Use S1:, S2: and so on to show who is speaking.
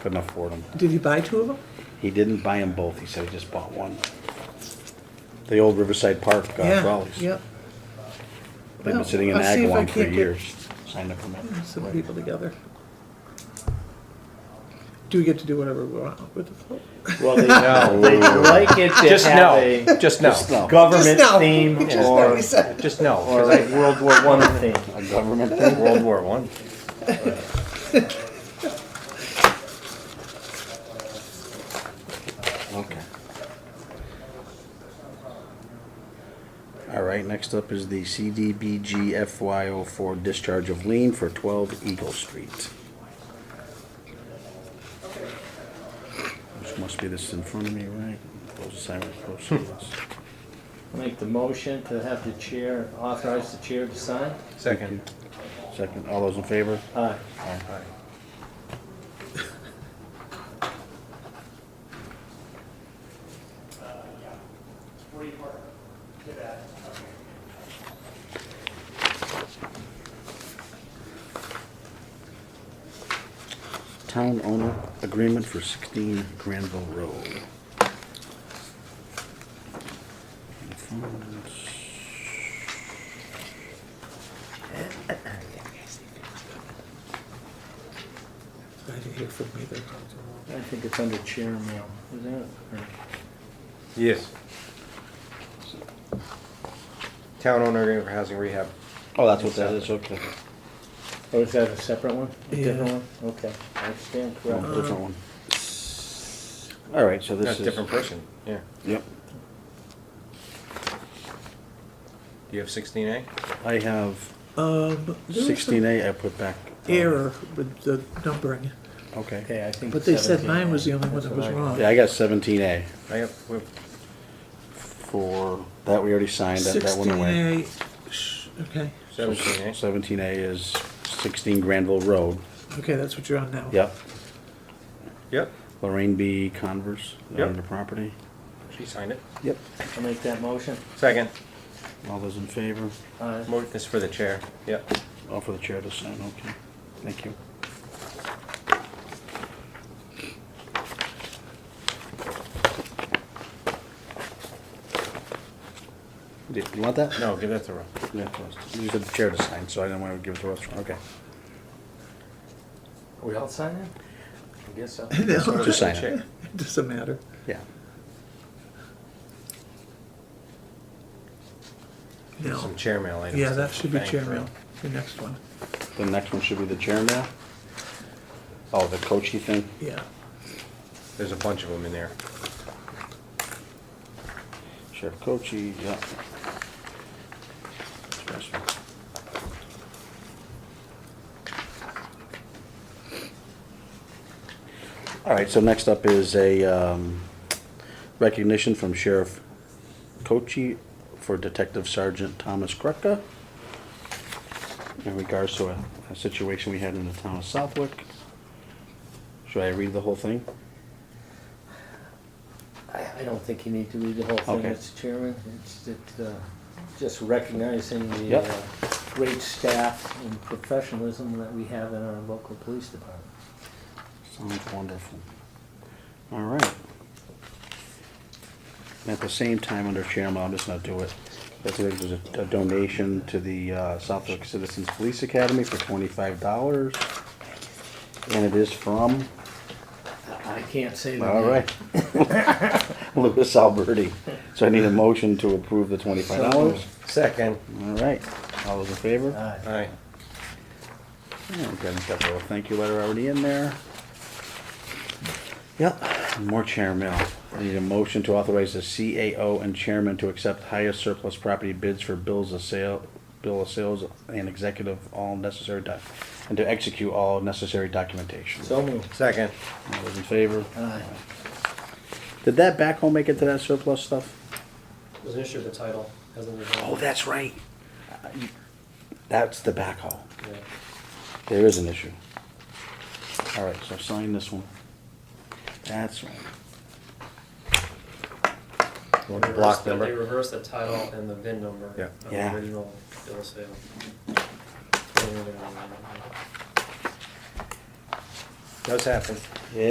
S1: couldn't afford them.
S2: Did you buy two of them?
S1: He didn't buy them both, he said he just bought one. The old Riverside Park uh, trolleys.
S2: Yeah, yep.
S1: They've been sitting in
S2: I'll see if I
S1: Agawam for
S2: can't get-
S1: years, signed up for
S2: Some
S1: that.
S2: people together. Do we get to do whatever we want with the float?
S3: Well, they, they like it to
S4: Just
S3: have
S4: no,
S3: a
S4: just
S1: Just
S4: no,
S1: no.
S3: government
S2: Just no.
S3: theme
S2: Just no,
S3: or,
S2: he said.
S4: just no.
S3: or
S4: 'cause
S3: like World War One theme.
S1: A government
S4: I-
S1: thing?
S4: World War One.
S1: Okay. All right, next up is the CDBG FY04 discharge of lien for 12 Eagle Street. Which must be this in front of me, right? Close the sign, close the sign.
S3: Make the motion to have the chair, authorize the chair to sign.
S4: Second.
S1: Second, all those in favor?
S3: Aye.
S1: Town owner agreement for 16 Granville Road.
S2: I didn't hear from either.
S3: I think it's under chair mail, is that? it? Or-
S4: Yes. Town owner agreement for housing rehab.
S1: Oh, that's what that is, okay.
S3: Oh, is that a separate one? A different
S2: Yeah.
S3: one? Okay, I stand
S1: No,
S3: corrected.
S1: Different one. All right, so this
S4: That's
S1: is.
S4: a different person, yeah.
S1: Yep.
S4: Do you have sixteen A?
S1: I have
S2: Um, there was
S1: sixteen
S2: some
S1: A I put back. um,
S2: error with the numbering,
S1: Okay.
S3: Okay, I think.
S2: but they said
S3: 17.
S2: mine was the only one
S3: That's
S2: that was
S3: what I-
S2: wrong.
S1: Yeah, I got seventeen A
S4: I have, we have-
S1: for, that we already signed, that, that went
S2: Sixteen
S1: away.
S2: A, sh- okay,
S4: seventeen A.
S1: Seventeen A is sixteen Granville Road,
S2: okay, that's what you're on now.
S1: yep.
S4: Yep,
S1: Lorraine B. Converse
S4: Yep.
S1: on the property.
S4: she signed it.
S1: Yep.
S3: I'll make that motion. Uh,
S4: Second,
S1: All those in favor?
S3: Aye.
S4: motion is for the chair, yep.
S1: All for the chair to sign, okay. Thank you. Did you want that?
S4: No, give that to Rob.
S1: Yeah, you said the chair to sign, so I didn't want to give it to us, okay.
S3: We all sign it? I guess so.
S2: No,
S1: Just sign it,
S4: Chair.
S2: it doesn't matter.
S1: yeah.
S2: No,
S4: Some chair mail items.
S2: yeah, that should be
S4: Thank
S2: chair
S4: you.
S2: mail, the next one,
S1: The next one should be the chair now. Oh, the coachy thing?
S2: yeah.
S4: There's a bunch of them in there.
S1: Sheriff Coachy, yeah. That's right. All right, so next up is a um, recognition from Sheriff Coachy for Detective Sergeant Thomas Krucka in regards to a a situation we had in the town of Southwick. Should I read the whole thing?
S3: I, I don't think you need to read the whole thing,
S1: Okay.
S3: Mr. Chairman. It's it, uh, just recognizing the
S1: Yep.
S3: uh, great staff and professionalism that we have in our local police department.
S1: Sounds wonderful. All right. And at the same time, under chairman, I'll just not do it. That's it, there's a- a donation to the uh, Southwick Citizens Police Academy for twenty-five dollars. And it is from,
S3: I I can't say that.
S1: all right, Louis Alberti. So I need a motion to approve the twenty-five dollars.
S4: Second,
S1: All right, all those in favor?
S3: Aye.
S4: aye.
S1: Yeah, we've got a couple of thank you letter already in there. Yep, more chair mail. I Need a motion to authorize the CAO and chairman to accept highest surplus property bids for bills of sale, bill of sales and executive all necessary doc, and to execute all necessary documentation.
S3: So moved.
S4: Second,
S1: All those in favor?
S3: Aye.
S1: Did that backhoe make it to that surplus stuff?
S5: There's an issue with the title, hasn't been
S1: Oh,
S5: resolved.
S1: that's right. Uh, you- That's the backhoe.
S5: Yeah.
S1: There is an issue. All right, so sign this one. That's right.
S4: want
S5: They
S4: the block
S5: reversed the- They
S4: number?
S5: reversed the title and the VIN number.
S4: Yeah.
S5: Of
S1: Yeah.
S5: the original bill of sale.
S4: does happen.